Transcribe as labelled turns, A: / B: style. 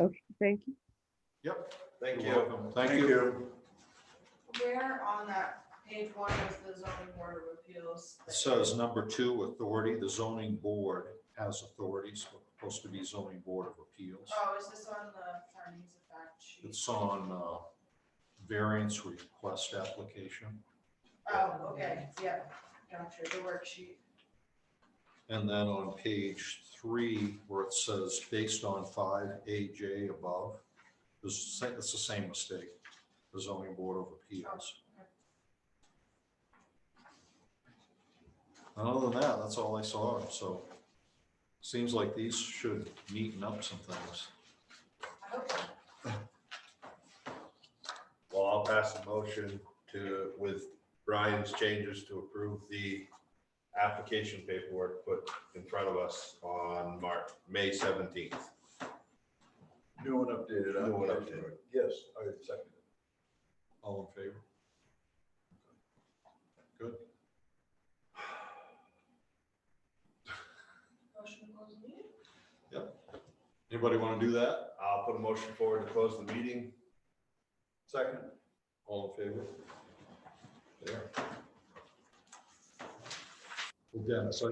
A: Okay, thank you.
B: Yep.
C: Thank
B: You're
C: you.
B: welcome. Thank you.
D: Where on that page one is the zoning board of appeals?
B: It Says number two, authority, the zoning board has authorities, supposed to be zoning board of appeals.
D: Oh, is this on the findings of fact sheet?
B: It's on uh, variance request application.
D: Oh, okay, yeah, gotcha, the worksheet.
B: And then on page three, where it says based on five AJ above, it's the same- it's the same mistake, the zoning board of appeals. And Other than that, that's all I saw, so seems like these should neaten up some things.
D: I hope so.
C: Well, I'll pass a motion to, with Brian's changes to approve the application paperwork put in front of us on March, May seventeenth.
E: New and updated.
C: New and
E: application.
C: updated.
E: Yes, I second it.
B: All in favor? Good.
D: Motion to close the meeting?
B: Anybody want to do that?
C: I'll put a motion forward to close the meeting.
E: Second.
B: All in favor? There. Well, Dennis, I